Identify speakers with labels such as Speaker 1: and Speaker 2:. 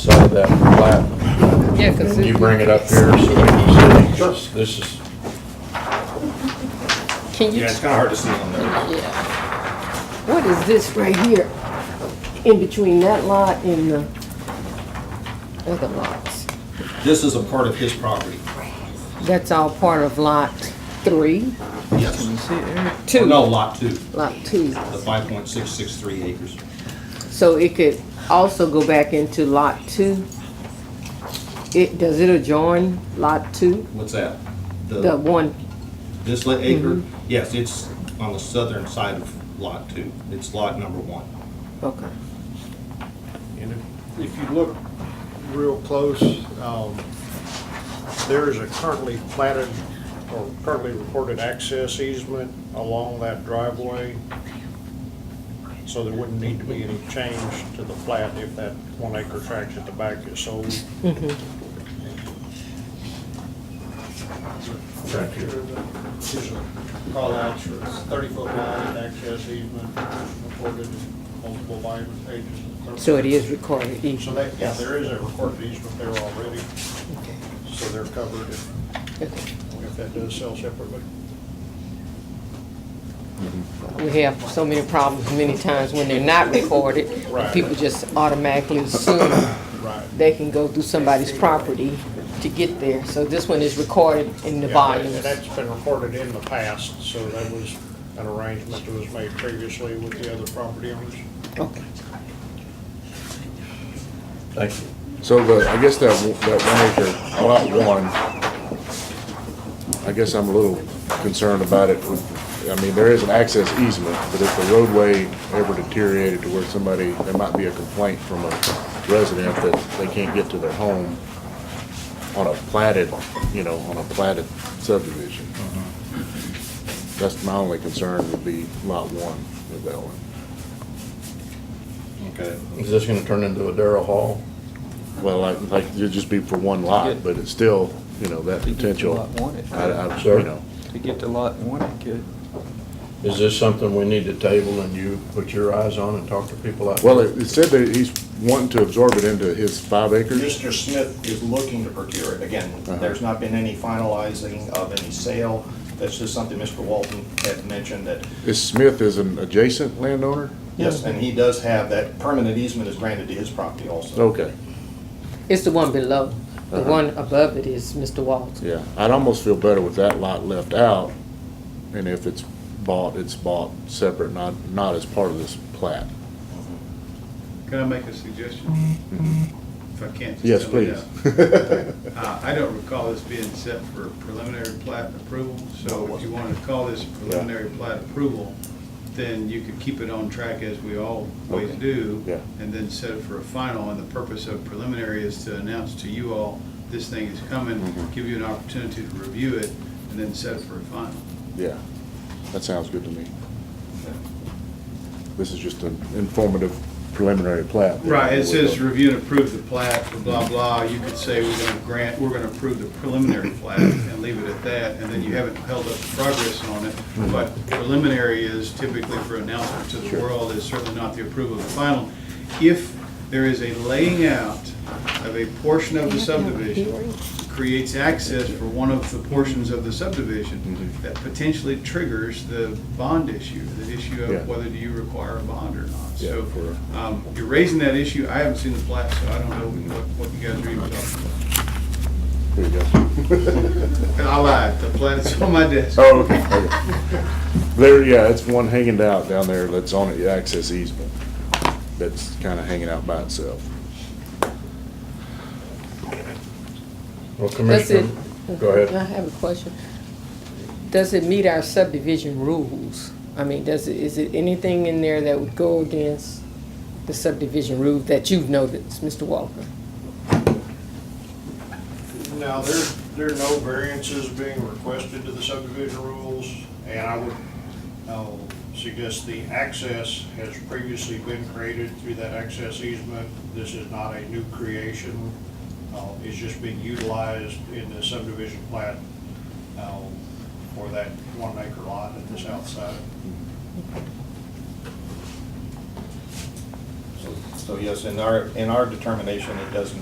Speaker 1: side of that plat.
Speaker 2: Yeah, because
Speaker 1: Can you bring it up here so we can see? Sure. This is,
Speaker 2: Can you,
Speaker 3: Yeah, it's kind of hard to see on there.
Speaker 2: yeah,
Speaker 4: What is this right here? In between that lot and the
Speaker 2: other lots.
Speaker 3: This is a part of his property.
Speaker 2: That's all part of lot three,
Speaker 3: Yes. Or
Speaker 2: two,
Speaker 3: No, lot two,
Speaker 2: lot two.
Speaker 3: the 5.663 acres.
Speaker 2: So it could also go back into lot two. It, does it adjoin lot two,
Speaker 3: What's that?
Speaker 2: the
Speaker 3: The,
Speaker 2: one?
Speaker 3: this li- acre? Yes, it's on the southern side of lot two. It's lot number one.
Speaker 2: Okay.
Speaker 5: And if, if you look real close, um, there is a currently platted or currently recorded access easement along that driveway. So there wouldn't need to be any change to the plat if that one acre tract at the back is sold. Tract here, there's a call out for thirty-foot wide access easement recorded in multiple volume pages. in the
Speaker 2: So it is recorded each.
Speaker 5: so that, yeah, there is a recorded easement there already,
Speaker 2: Okay.
Speaker 5: so they're covered if,
Speaker 2: Okay.
Speaker 5: if that does sell separately.
Speaker 2: We have so many problems many times when they're not recorded.
Speaker 5: Right.
Speaker 2: People just automatically assume
Speaker 5: Right.
Speaker 2: they can go through somebody's property to get there. So this one is recorded in the
Speaker 5: Yeah, and
Speaker 2: volumes.
Speaker 5: That's been recorded in the past, so that was an arrangement that was made previously with the other property owners.
Speaker 2: Okay.
Speaker 1: thank you. So the, I guess that, w- that one acre, lot one, I guess I'm a little concerned about it. I mean, there is an access easement, but if the roadway ever deteriorated to where somebody, there might be a complaint from a resident that they can't get to their home on a platted, you know, on a platted subdivision. That's my only concern would be lot one with that one.
Speaker 3: Okay.
Speaker 1: Is this gonna turn into a Darrell Hall? Well, like, like, it'd just be for one lot, but it's still, you know, that
Speaker 6: To get to lot
Speaker 1: potential.
Speaker 6: one, it
Speaker 1: I,
Speaker 6: could.
Speaker 1: I, you know.
Speaker 6: To get to lot one, it could.
Speaker 7: Is this something we need to table and you put your eyes on and talk to people out?
Speaker 1: Well, it it said that he's wanting to absorb it into his five acres.
Speaker 3: Mr. Smith is looking to procure it. Again,
Speaker 1: Uh-huh.
Speaker 3: there's not been any finalizing of any sale. That's just something Mr. Walton had mentioned that,
Speaker 1: Is Smith is an adjacent landowner?
Speaker 3: yes, and he does have that permanent easement is granted to his property also.
Speaker 1: Okay,
Speaker 2: It's the one below. The
Speaker 1: Uh-huh.
Speaker 2: one above it is Mr. Walton.
Speaker 1: yeah. I'd almost feel better with that lot left out. And if it's bought, it's bought separate, not, not as part of this plat.
Speaker 8: Can I make a suggestion? If I can't just
Speaker 1: Yes,
Speaker 8: tell you
Speaker 1: please.
Speaker 8: that. Uh, I don't recall this being set for preliminary plat approval, so if you wanted to call this preliminary plat approval, then you could keep it on track as we always
Speaker 1: Okay.
Speaker 8: do.
Speaker 1: Yeah.
Speaker 8: And then set it for a final, and the purpose of preliminary is to announce to you all, this thing is coming,
Speaker 1: Mm-hmm.
Speaker 8: give you an opportunity to review it, and then set it for a final.
Speaker 1: Yeah, that sounds good to me. This is just an informative preliminary plat.
Speaker 8: Right, it says review and approve the plat, blah, blah, you could say we're gonna grant, we're gonna approve the preliminary plat and leave it at that, and then you haven't held up the progress on it,
Speaker 1: Hmm.
Speaker 8: but preliminary is typically for announcement to the world, is certainly not the approval of the final. If there is a laying out of a portion of the subdivision, creates access for one of the portions of the subdivision,
Speaker 1: Hmm.
Speaker 8: that potentially triggers the bond issue, the issue
Speaker 1: Yeah.
Speaker 8: of whether do you require a bond or not.
Speaker 1: Yeah,
Speaker 8: So,
Speaker 1: for-
Speaker 8: um, you're raising that issue, I haven't seen the plat, so I don't know what, what you guys are even talking about.
Speaker 1: There you go.
Speaker 8: And I lied, the plat's on my desk.
Speaker 1: Oh, okay, okay. There, yeah, it's one hanging out down there that's on the access easement, that's kinda hanging out by itself.
Speaker 7: Well,
Speaker 2: Does it?
Speaker 7: Commissioner, go ahead.
Speaker 2: I have a question. Does it meet our subdivision rules? I mean, does it, is it anything in there that would go against the subdivision rules that you've noticed, Mr. Walker?
Speaker 5: Now, there, there are no variances being requested to the subdivision rules, and I would, uh suggest the access has previously been created through that access easement. This is not a new creation, uh, it's just being utilized in the subdivision plat, uh, for that one acre lot at the south side.
Speaker 3: So So yes, in our, in our determination, it doesn't